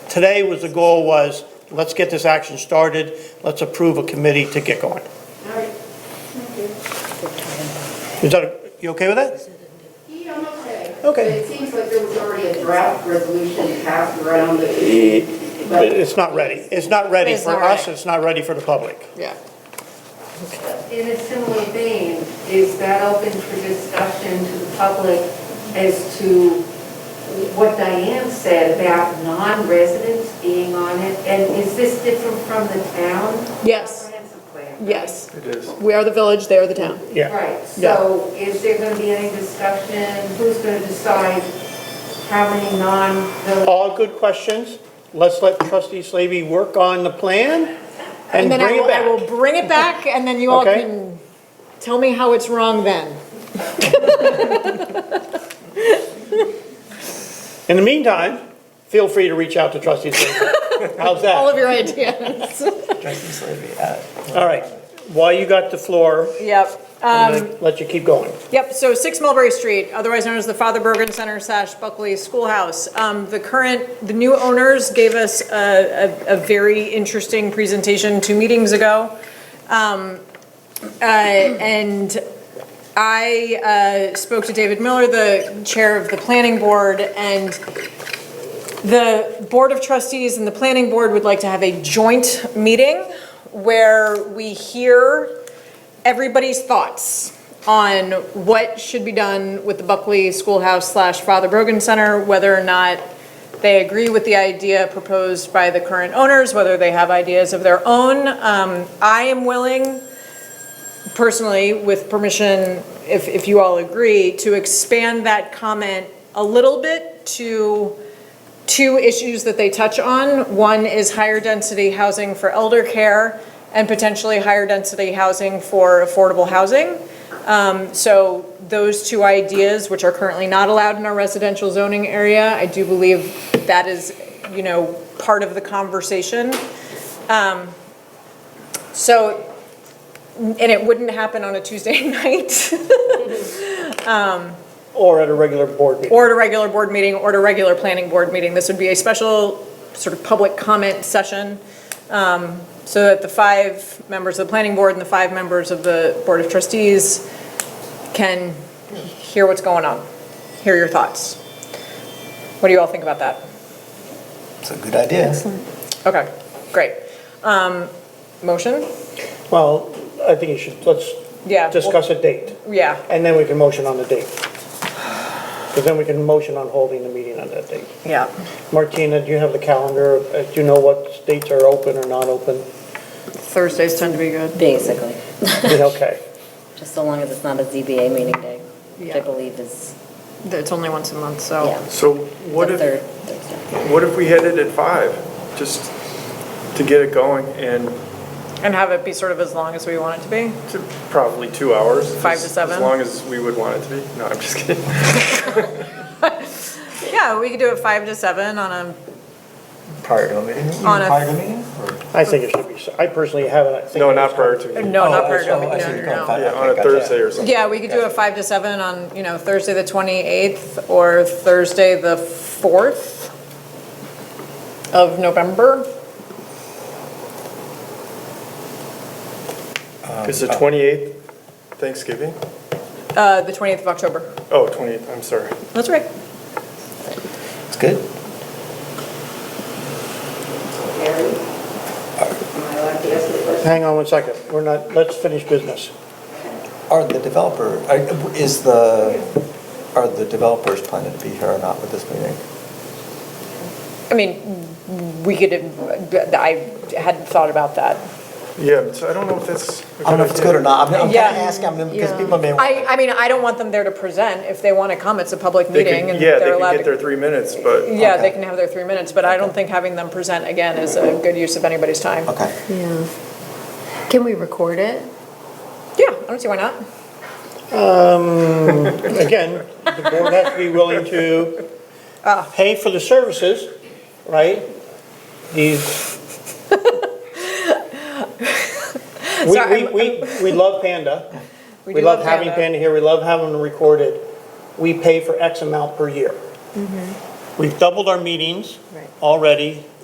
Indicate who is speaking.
Speaker 1: Today was, the goal was, let's get this action started, let's approve a committee to get going.
Speaker 2: All right.
Speaker 1: Is that, you okay with that?
Speaker 2: Yeah, I'm okay.
Speaker 1: Okay.
Speaker 2: But it seems like there was already a draft resolution passed around the,
Speaker 1: But It's not ready. It's not ready
Speaker 3: It's
Speaker 1: for
Speaker 3: not
Speaker 1: us,
Speaker 3: ready.
Speaker 1: it's not ready for the public.
Speaker 3: Yeah.
Speaker 4: In a similar vein, is that open for discussion to the public as to what Diane said about non-residents being on it? And is this different from the town?
Speaker 3: Yes.
Speaker 4: comprehensive plan?
Speaker 3: Yes. It is. We are the village, they are the town.
Speaker 1: Yeah.
Speaker 4: Right, so is there going to be any discussion? Who's going to decide how many non-village?
Speaker 1: All good questions. Let's let trustee Slavy work on the plan and
Speaker 3: then I
Speaker 1: bring it
Speaker 3: will, I
Speaker 1: back.
Speaker 3: will bring it back and then you all
Speaker 1: Okay.
Speaker 3: can tell me how it's wrong then.
Speaker 1: In the meantime, feel free to reach out to trustee Slavy. How's
Speaker 3: All
Speaker 1: that?
Speaker 3: of your ideas.
Speaker 5: Trustee Slavy, uh,
Speaker 1: All right, while you got the floor,
Speaker 3: Yep.
Speaker 1: I'm
Speaker 3: Um,
Speaker 1: gonna let you keep going.
Speaker 3: Yep, so 6 Mulberry Street, otherwise known as the Father Bergen Center slash Buckley Schoolhouse. Um, The current, the new owners gave us a, a- a very interesting presentation two meetings ago. Um, uh, And I uh, spoke to David Miller, the chair of the planning board, and the Board of Trustees and the Planning Board would like to have a joint meeting where we hear everybody's thoughts on what should be done with the Buckley Schoolhouse slash Father Brogan Center, whether or not they agree with the idea proposed by the current owners, whether they have ideas of their own. Um, I am willing, personally, with permission, if, if you all agree, to expand that comment a little bit to two issues that they touch on. One is higher density housing for elder care and potentially higher density housing for affordable housing. Um, So those two ideas, which are currently not allowed in our residential zoning area, I do believe that is, you know, part of the conversation. Um, So, and it wouldn't happen on a Tuesday night.
Speaker 1: Or at a regular board meeting.
Speaker 3: or at a regular board meeting, or at a regular planning board meeting. This would be a special sort of public comment session, um, so that the five members of the planning board and the five members of the board of trustees can hear what's going on, hear your thoughts. What do you all think about that?
Speaker 5: it's a good idea.
Speaker 3: Okay, great. Um, Motion?
Speaker 1: Well, I think you should, let's
Speaker 3: Yeah. we'll-
Speaker 1: discuss a date,
Speaker 3: Yeah,
Speaker 1: and then we can motion on the date. Because then we can motion on holding the meeting on that date.
Speaker 3: yeah.
Speaker 1: Martina, do you have the calendar? Uh, Do you know what dates are open or not open?
Speaker 3: Thursdays tend to be good.
Speaker 6: Basically,
Speaker 1: Yeah, Okay.
Speaker 6: just so long as it's not a ZBA meeting day, which
Speaker 3: Yeah.
Speaker 6: I believe is,
Speaker 3: It's only once a month, so.
Speaker 6: yeah,
Speaker 7: So
Speaker 6: the
Speaker 7: Oh. what
Speaker 6: third
Speaker 7: if,
Speaker 6: Thursday.
Speaker 7: what if we hit it at five, just to get it going, and
Speaker 3: And have it be sort of as long as we want it to be?
Speaker 7: to probably two hours?
Speaker 3: Five to
Speaker 7: as-
Speaker 3: seven?
Speaker 7: As long as we would want it to be. No, I'm just kidding.
Speaker 3: Yeah, we could do it five to seven on a
Speaker 5: Prior to a meeting?
Speaker 3: On a-
Speaker 5: Prior to a meeting? or-
Speaker 1: I think it should be, I personally haven't. I think
Speaker 7: No,
Speaker 1: it
Speaker 7: not
Speaker 1: was-
Speaker 7: prior to,
Speaker 3: No,
Speaker 5: Oh,
Speaker 3: not
Speaker 5: I
Speaker 3: part
Speaker 5: see- oh, I see
Speaker 3: of
Speaker 5: what
Speaker 3: it,
Speaker 5: you're
Speaker 3: no,
Speaker 5: going
Speaker 3: no,
Speaker 5: for.
Speaker 3: no.
Speaker 7: yeah, on a
Speaker 5: Okay, gotcha.
Speaker 7: Thursday or something.
Speaker 3: Yeah, we could do a five to seven on, you know, Thursday the 28th or Thursday the 4th of November.
Speaker 5: Um,
Speaker 7: It's
Speaker 5: oh,
Speaker 7: the 28th, Thanksgiving?
Speaker 3: Uh, The 28th of October.
Speaker 7: Oh, 28th, I'm sorry.
Speaker 3: That's right.
Speaker 5: It's good.
Speaker 2: Gary? Am I allowed to ask the question?
Speaker 1: Hang on one second, we're not, let's finish business.
Speaker 5: Are the developer, are- is the, are the developers planning to be here or not with this meeting?
Speaker 3: I mean, we could, I hadn't thought about that.
Speaker 7: Yeah, so I don't know if that's.
Speaker 5: I don't know if it's good or not. I'm I'm
Speaker 3: Yeah.
Speaker 5: kind of asking, I mean, because people may.
Speaker 3: I, I mean, I don't want them there to present. If they want to come, it's a public
Speaker 7: They could-
Speaker 3: meeting and
Speaker 7: Yeah, they
Speaker 3: they're
Speaker 7: could
Speaker 3: allowed
Speaker 7: get their
Speaker 3: to.
Speaker 7: three minutes, but.
Speaker 3: Yeah, they
Speaker 5: Okay.
Speaker 3: can have their three minutes, but I don't think having them present again is a good use of anybody's time.
Speaker 5: Okay.
Speaker 8: Yeah. Can we record it?
Speaker 3: Yeah, I don't see why not.
Speaker 1: Again, the board has to be willing to
Speaker 3: Ah.
Speaker 1: pay for the services, right? These. We,
Speaker 3: Sorry,
Speaker 1: we, we, we love Panda.
Speaker 3: We
Speaker 1: We
Speaker 3: do
Speaker 1: love
Speaker 3: love
Speaker 1: having
Speaker 3: Panda.
Speaker 1: Panda here, we love having them recorded. We
Speaker 3: Mm-hmm.
Speaker 1: pay for X amount per year. We've doubled our meetings
Speaker 8: Right.
Speaker 1: already